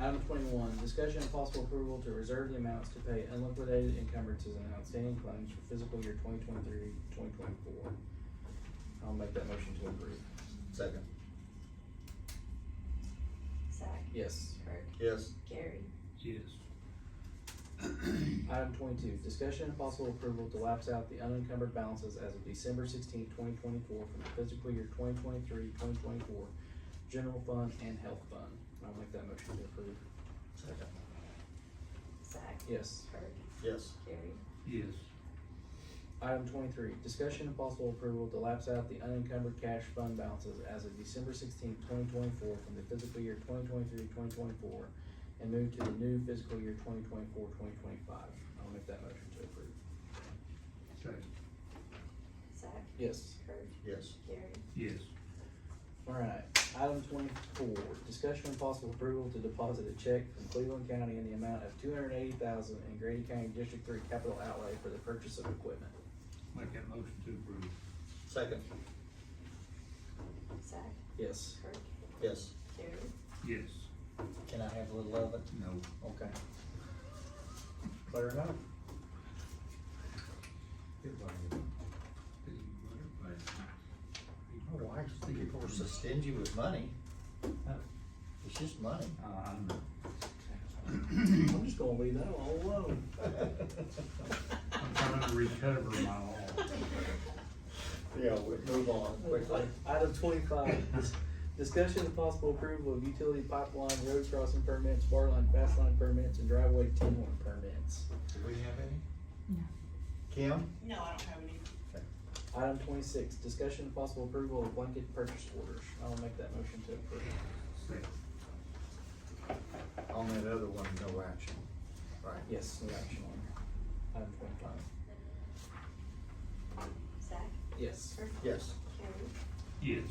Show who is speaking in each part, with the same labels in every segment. Speaker 1: Item twenty-one, discussion and possible approval to reserve the amounts to pay unliquidated encumbrances and outstanding claims for fiscal year 2023-2024. twenty-four. I'll make that motion to approve.
Speaker 2: Second.
Speaker 3: Zach,
Speaker 1: Yes.
Speaker 3: Kirk,
Speaker 2: Yes.
Speaker 3: Gary,
Speaker 4: yes,
Speaker 1: Item twenty-two, discussion and possible approval to lapse out the unencumbered balances as of December sixteenth, twenty twenty-four from the fiscal year 2023-2024 general fund and health fund. I'll make that motion to approve.
Speaker 2: Second.
Speaker 3: Zach,
Speaker 1: Yes.
Speaker 3: Kirk,
Speaker 2: Yes.
Speaker 3: Gary,
Speaker 4: yes,
Speaker 1: Item twenty-three, discussion and possible approval to lapse out the unencumbered cash fund balances as of December sixteenth, twenty twenty-four from the fiscal year 2023-2024 and move to the new fiscal year 2024-2025. twenty-four, twenty twenty-five. I'll make that motion to approve.
Speaker 4: second,
Speaker 3: Zach,
Speaker 1: Yes.
Speaker 3: Kirk,
Speaker 2: Yes.
Speaker 3: Gary,
Speaker 4: yes,
Speaker 1: Alright, item twenty-four, discussion and possible approval to deposit a check from Cleveland County in the amount of two hundred eighty thousand in Grady County District Three capital outlay for the purchase of equipment.
Speaker 4: make that motion to approve,
Speaker 2: Second.
Speaker 3: Zach,
Speaker 1: Yes.
Speaker 3: Kirk,
Speaker 2: Yes.
Speaker 3: Gary,
Speaker 4: yes,
Speaker 2: Can I have a little of it?
Speaker 4: no,
Speaker 2: Okay. Clear enough? My wife's thinking people are so stingy with money. It's just money.
Speaker 4: Uh, I'm,
Speaker 1: I'm just gonna leave that all alone.
Speaker 4: I'm trying to recover my law,
Speaker 2: Yeah, we move on quickly.
Speaker 1: Item twenty-five, dis- discussion of possible approval of utility pipeline, road crossing permits, bar line, fast line permits, and driveway T one permits.
Speaker 2: Do we have any? No. Kim?
Speaker 5: No, I don't have any.
Speaker 1: Item twenty-six, discussion of possible approval of blanket purchase orders. I'll make that motion to approve.
Speaker 4: second,
Speaker 2: On that other one, no action. Right.
Speaker 1: Yes, no action on it. Item twenty-five.
Speaker 3: Zach,
Speaker 1: Yes.
Speaker 3: Kirk,
Speaker 2: Yes.
Speaker 3: Gary,
Speaker 4: yes,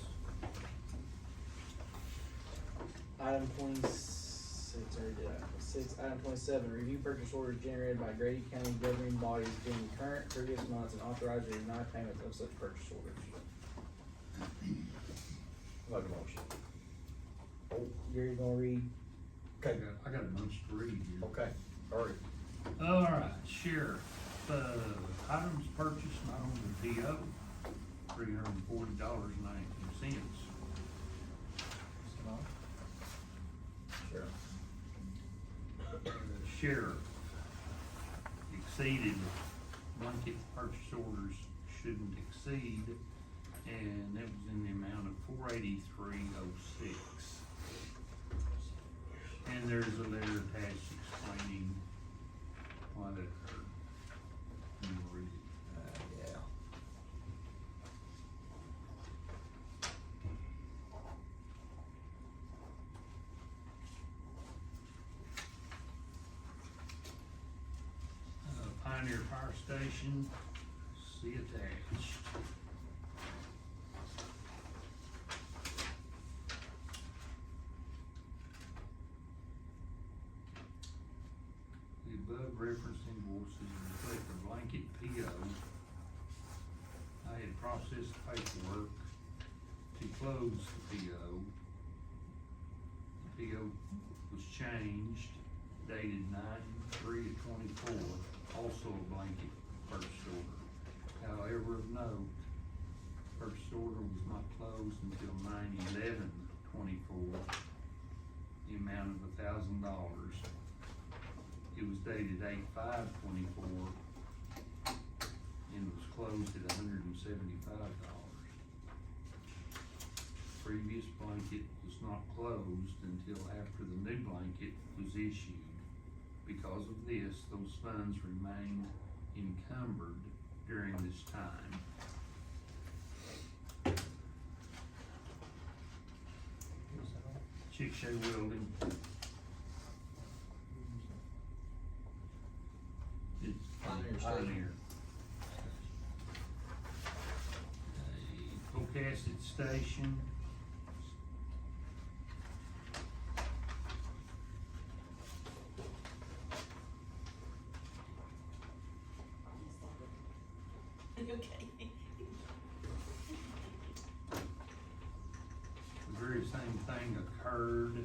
Speaker 1: Item twenty-six, or did I, six, item twenty-seven, review purchase orders generated by Grady County governing bodies during the current, previous months, and authorize or deny payments of such purchase orders.
Speaker 2: Like a motion.
Speaker 1: Gary's gonna read
Speaker 4: I
Speaker 2: Okay,
Speaker 4: got, I got a bunch to read here.
Speaker 2: okay, hurry.
Speaker 4: All right, sheriff, uh, items purchased not on the PO, three hundred and forty dollars and nineteen cents.
Speaker 2: Sure.
Speaker 4: Sheriff exceeded blanket purchase orders shouldn't exceed, and that was in the amount of four eighty-three oh six. And there's a letter attached explaining why that occurred. You wanna read it?
Speaker 2: Uh, yeah.
Speaker 4: Uh, Pioneer Fire Station, see attached. The above referenced invoices reflect a blanket PO. I had processed paperwork to close the PO. The PO was changed dated nine three to twenty-four, also a blanket purchase order. However, of note, purchase order was not closed until nine eleven twenty-four, the amount of a thousand dollars. It was dated eight five twenty-four and was closed at hundred and seventy-five dollars. Previous blanket was not closed until after the new blanket was issued. Because of this, those funds remained encumbered during this time. Chickasha welding. It's
Speaker 2: Pioneer Station.
Speaker 4: Pioneer. A Pocasset Station.
Speaker 3: Are you okay?
Speaker 4: the very same thing occurred